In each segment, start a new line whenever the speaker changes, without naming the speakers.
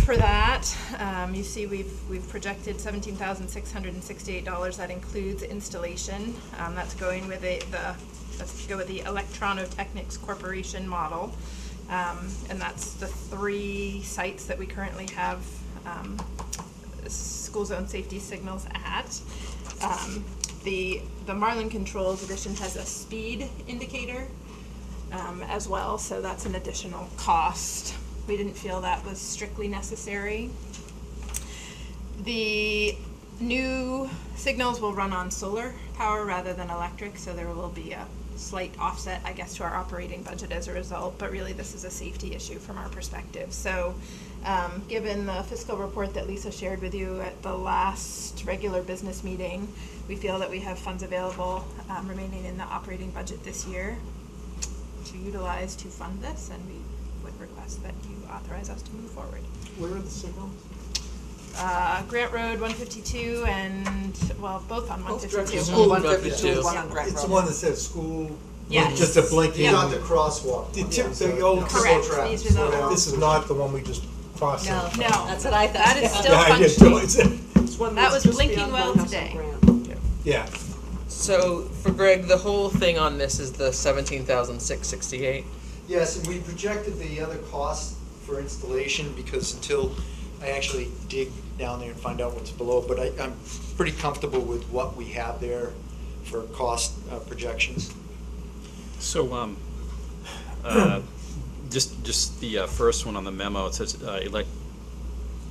for that, um, you see we've, we've projected seventeen thousand six hundred and sixty-eight dollars, that includes installation. Um, that's going with the, the, let's go with the Electronotechnics Corporation model. Um, and that's the three sites that we currently have, um, school zone safety signals at. Um, the, the Marlin Controls edition has a speed indicator, um, as well, so that's an additional cost. We didn't feel that was strictly necessary. The new signals will run on solar power rather than electric, so there will be a slight offset, I guess, to our operating budget as a result, but really this is a safety issue from our perspective. So, um, given the fiscal report that Lisa shared with you at the last regular business meeting, we feel that we have funds available, um, remaining in the operating budget this year to utilize to fund this, and we would request that you authorize us to move forward.
Where are the signals?
Uh, Grant Road one fifty-two and, well, both on one fifty-two.
directions.
School
One
drop it
fifty-two,
too.
one on Grant
It's the
Road.
one that says school,
Yes.
just a blanket.
Yeah.
Not the crosswalk.
The
one,
tip-
yeah,
the
so-
old
yeah.
Slow
Correct, these are
slow
the,
down.
This is not the one we just crossed.
No.
over.
no,
That's what I thought.
that is still
Yeah, I get
functioning.
it.
It's one
that
that's
was
just
blinking
beyond
well
my house on
today.
Grant.
Yeah,
So for Greg, the whole thing on this is the seventeen thousand six sixty-eight.
Yes, and we projected the other costs for installation because until I actually dig down there and find out what's below, but I, I'm pretty comfortable with what we have there for cost uh, projections.
So, um, uh, just, just the uh, first one on the memo, it says, uh, elec-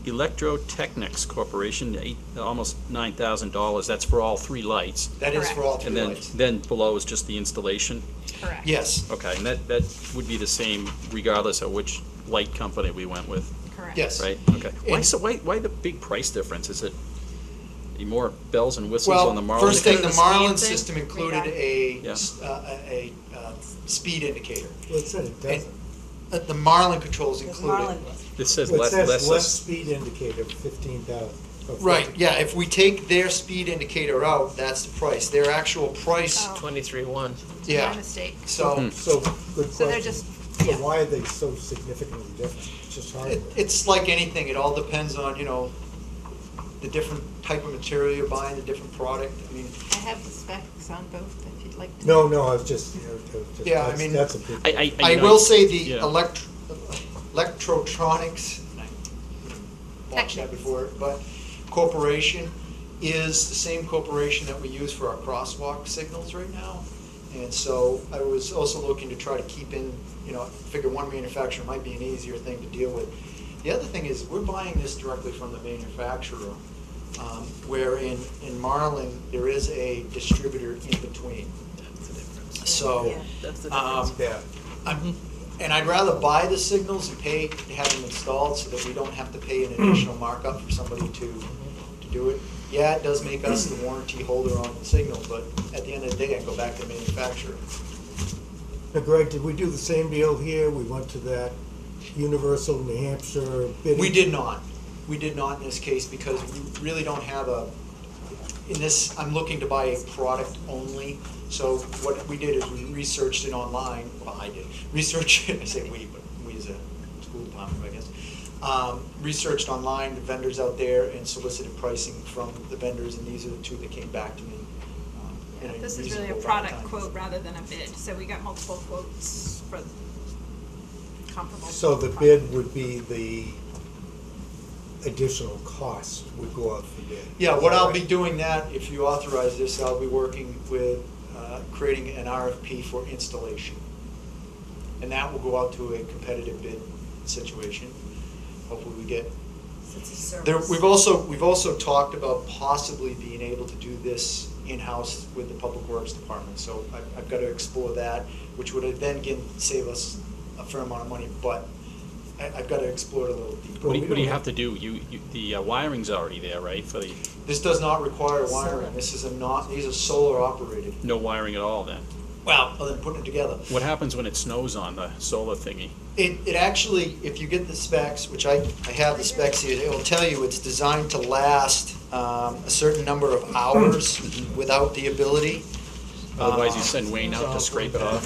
Electrotechnics Corporation, eight, almost nine thousand dollars, that's for all three lights.
That is for all three
And then,
lights.
then below is just the installation?
Correct.
Yes,
Okay, and that, that would be the same regardless of which light company we went with,
Correct.
yes.
right? Okay. Why so, why, why the big price difference? Is it more bells and whistles on the
Well,
Marlin?
first thing, the
Included the speed
Marlin
thing?
system included
Radar.
a,
Yeah.
s- uh, a, a, uh, speed indicator.
well, it said it doesn't.
Uh, The Marlin controls
Because
included.
Marlin was.
It says
It
less,
says
less.
left speed indicator, fifteen thousand.
Right, yeah, if we take their speed indicator out, that's the price, their actual price,
Oh.
Twenty-three one.
My
yeah,
mistake.
so,
Hmm.
So, good
So they're
question.
just,
So
yeah,
why are they so significantly different? It's just
it,
hardware.
it's like anything, it all depends on, you know, the different type of material you're buying, the different product, I mean,
I have the specs on both if you'd like to.
No, no, I was just, you know, it was just,
Yeah, I
that's,
mean-
that's a big.
I, I,
I
know-
will say the
yeah.
elect, electrotronics, and I watched that
Technics.
before, but corporation is the same corporation that we use for our crosswalk signals right now. And so I was also looking to try to keep in, you know, figure one manufacturer might be an easier thing to deal with. The other thing is, we're buying this directly from the manufacturer, um, where in, in Marlin, there is a distributor in between. So,
Yeah.
That's the
um,
difference.
Yeah,
I'm, and I'd rather buy the signals and pay, to have them installed so that we don't have to pay an additional markup for somebody to, to do it. Yeah, it does make us the warranty holder on the signal, but at the end of the day, I go back to the manufacturer.
now Greg, did we do the same deal here? We went to that Universal New Hampshire bidding?
We did not, we did not in this case because we really don't have a, in this, I'm looking to buy a product only. So what we did is we researched it online, well, I did, researched it, I say we, but we as a school department, I guess. Um, researched online the vendors out there and solicited pricing from the vendors and these are the two that came back to me. um,
Yeah,
in
This is really a
reasonable amount of
product
time.
quote rather than a bid, so we got multiple quotes for comparable.
So the bid would be the additional cost would go out for bid?
Yeah, what I'll be doing that, if you authorize this, I'll be working with, uh, creating an RFP for installation. And that will go out to a competitive bid situation. Hopefully we get,
It's a service.
there, we've also, we've also talked about possibly being able to do this in-house with the Public Works Department. So I've, I've got to explore that, which would then again save us a fair amount of money, but I, I've got to explore it a little deeper.
What do
Well,
you,
we
what do you
don't
have to do? You, you, the uh, wiring's already there, right, for the,
This does not require
Solar.
wiring, this is a not, these are solar operated.
no wiring at all then?
Well, other than putting it together.
What happens when it snows on the solar thingy?
It, it actually, if you get the specs, which I, I have the specs here, it'll tell you it's designed to last um, a certain number of hours without the ability.
Ah.
Otherwise you send Wayne out to scrape it off.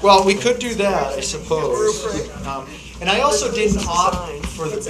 Well, we could do that, I suppose. Um, And I also didn't opt for the